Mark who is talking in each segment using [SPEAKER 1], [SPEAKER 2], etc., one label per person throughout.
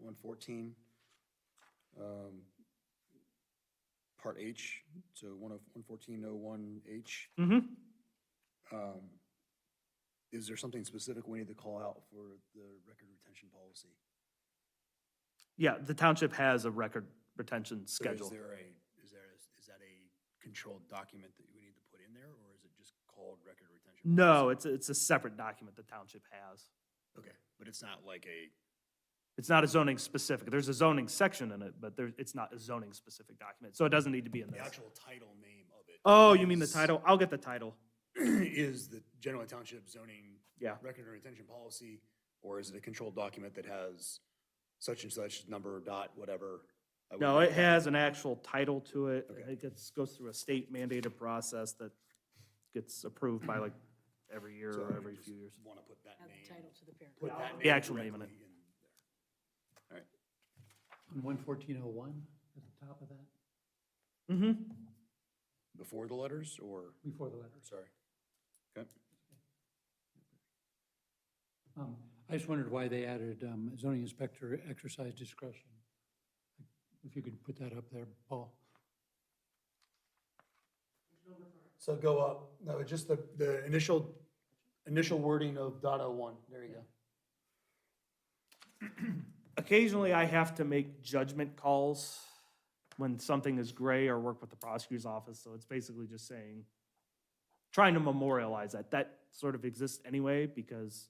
[SPEAKER 1] one fourteen, um, part H, so one of, one fourteen oh one H.
[SPEAKER 2] Mm-hmm.
[SPEAKER 1] Um, is there something specific we need to call out for the record retention policy?
[SPEAKER 2] Yeah, the township has a record retention
[SPEAKER 1] So
[SPEAKER 2] schedule.
[SPEAKER 1] Is there a, is there, a- is that a controlled document that we need to put in there, or is it just called record retention?
[SPEAKER 2] No,
[SPEAKER 1] policy?
[SPEAKER 2] it's, it's a separate document the township has.
[SPEAKER 1] Okay, but it's not like a,
[SPEAKER 2] It's not a zoning specific. There's a zoning section in it, but there, it's not a zoning specific document, so it doesn't need to be in
[SPEAKER 1] the
[SPEAKER 2] this.
[SPEAKER 1] actual title name of it.
[SPEAKER 2] Oh, you mean the
[SPEAKER 1] is-
[SPEAKER 2] title? I'll get the title.
[SPEAKER 1] Is the general township zoning
[SPEAKER 2] Yeah.
[SPEAKER 1] record or retention policy, or is it a controlled document that has such and such number, dot, whatever? I
[SPEAKER 2] No,
[SPEAKER 1] wouldn't
[SPEAKER 2] it
[SPEAKER 1] know.
[SPEAKER 2] has an actual title to it.
[SPEAKER 1] Okay.
[SPEAKER 2] It gets, goes through a state mandated process that gets approved by like every year
[SPEAKER 1] So
[SPEAKER 2] or
[SPEAKER 1] I
[SPEAKER 2] every
[SPEAKER 1] just
[SPEAKER 2] few years.
[SPEAKER 1] Want to put that
[SPEAKER 3] Add the
[SPEAKER 1] name,
[SPEAKER 3] title to the
[SPEAKER 1] put
[SPEAKER 3] paragraph.
[SPEAKER 1] that name.
[SPEAKER 2] The actual name in it.
[SPEAKER 1] directly there. All right,
[SPEAKER 4] On one fourteen oh one, at the top of that,
[SPEAKER 2] Mm-hmm.
[SPEAKER 1] before the letters, or,
[SPEAKER 4] before the letters.
[SPEAKER 1] sorry? Okay,
[SPEAKER 4] Um, I just wondered why they added um, zoning inspector exercise discretion. If you could put that up there, Paul.
[SPEAKER 1] so go up, no, just the, the initial, initial wording of dot oh one, there you go.
[SPEAKER 2] Occasionally, I have to make judgment calls when something is gray or work with the prosecutor's office, so it's basically just saying, trying to memorialize that. That sort of exists anyway, because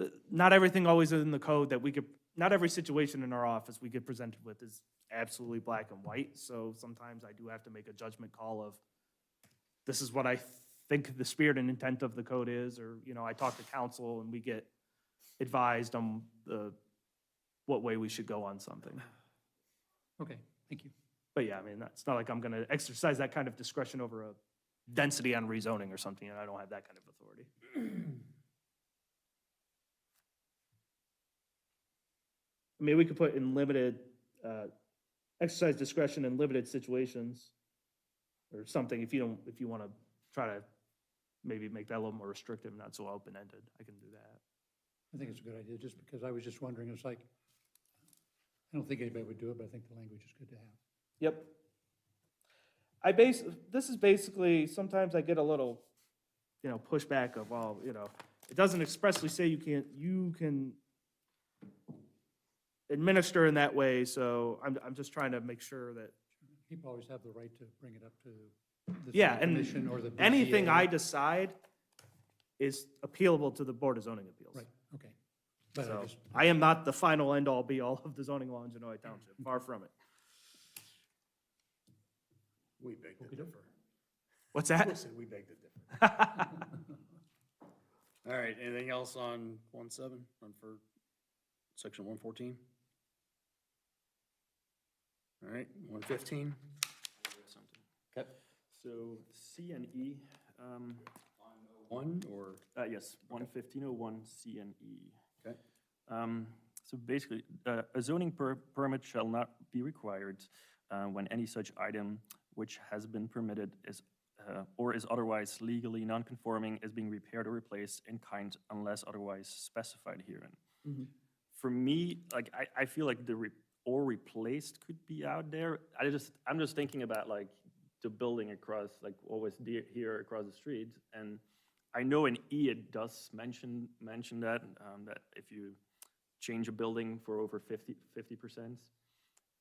[SPEAKER 2] uh, not everything always is in the code that we could, not every situation in our office we get presented with is absolutely black and white, so sometimes I do have to make a judgment call of, this is what I think the spirit and intent of the code is, or, you know, I talk to counsel and we get advised on the what way we should go on something.
[SPEAKER 4] Okay, thank you.
[SPEAKER 2] But yeah, I mean, it's not like I'm gonna exercise that kind of discretion over a density on rezoning or something, and I don't have that kind of authority. I mean, we could put in limited, uh, exercise discretion in limited situations or something, if you don't, if you wanna try to maybe make that a little more restrictive, not so open-ended, I can do that.
[SPEAKER 4] I think it's a good idea, just because I was just wondering, it's like, I don't think anybody would do it, but I think the language is good to have.
[SPEAKER 2] Yep. I base, this is basically, sometimes I get a little, you know, pushback of, well, you know, it doesn't expressly say you can't, you can administer in that way, so I'm, I'm just trying to make sure that
[SPEAKER 4] People always have the right to bring it up to the
[SPEAKER 2] Yeah,
[SPEAKER 4] city
[SPEAKER 2] and
[SPEAKER 4] commission or the.
[SPEAKER 2] anything
[SPEAKER 4] BZA.
[SPEAKER 2] I decide is appealable to the Board of Zoning Appeals.
[SPEAKER 4] Right, okay. But I
[SPEAKER 2] So
[SPEAKER 4] just,
[SPEAKER 2] I am not the final end-all be-all of the zoning law in Genoa Township, far from it.
[SPEAKER 1] We beg to differ.
[SPEAKER 2] What's that?
[SPEAKER 1] Listen, we beg to differ. All right, anything else on one seven, on for section one fourteen? All right, one fifteen? Okay.
[SPEAKER 5] So C and E, um,
[SPEAKER 1] One or,
[SPEAKER 5] uh, yes, one fifteen oh one C and E.
[SPEAKER 1] okay,
[SPEAKER 5] Um, so basically, uh, a zoning per- permit shall not be required, uh, when any such item which has been permitted is, uh, or is otherwise legally non-conforming is being repaired or replaced in kind unless otherwise specified herein. For me, like, I, I feel like the re- or replaced could be out there. I just, I'm just thinking about like the building across, like always de- here across the street. And I know in E it does mention, mention that, um, that if you change a building for over 50, 50%.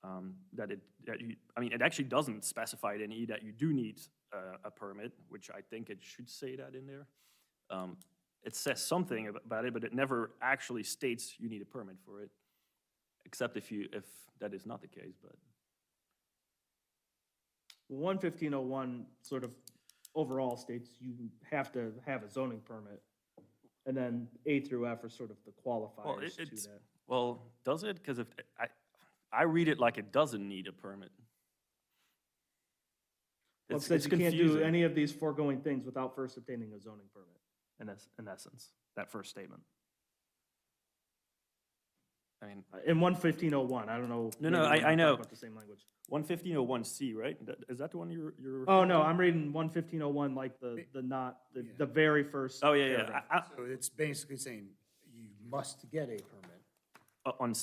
[SPEAKER 5] um, That it, that you, I mean, it actually doesn't specify it in E that you do need uh, a permit, which I think it should say that in there. Um, It says something ab- about it, but it never actually states you need a permit for it, except if you, if that is not the case, but.
[SPEAKER 2] One fifteen oh one sort of overall states you have to have a zoning permit. And then A through F are sort of the qualifiers to
[SPEAKER 5] it's-
[SPEAKER 2] that.
[SPEAKER 5] Well, does it? Because if, I, I read it like it doesn't need a permit.
[SPEAKER 2] Well, it
[SPEAKER 5] It's
[SPEAKER 2] says
[SPEAKER 5] it's
[SPEAKER 2] you can't do
[SPEAKER 5] confusing.
[SPEAKER 2] any of these foregoing things without first obtaining a zoning permit, in es- in essence, that first statement.
[SPEAKER 5] I mean,
[SPEAKER 2] Uh, In one fifteen oh one, I don't know.
[SPEAKER 5] No, no,
[SPEAKER 2] maybe
[SPEAKER 5] I-
[SPEAKER 2] we're not
[SPEAKER 5] I
[SPEAKER 2] talking
[SPEAKER 5] know.
[SPEAKER 2] About the same language.
[SPEAKER 5] One fifteen oh one C, right? That- Is that the one you're, you're?
[SPEAKER 2] Oh,
[SPEAKER 5] referring
[SPEAKER 2] no,
[SPEAKER 5] to?
[SPEAKER 2] I'm reading one fifteen oh one like the, the not, the, the very first.
[SPEAKER 5] Oh, yeah, yeah.
[SPEAKER 2] paragraph.
[SPEAKER 5] I-
[SPEAKER 1] so it's basically saying you must get a permit.
[SPEAKER 5] I- On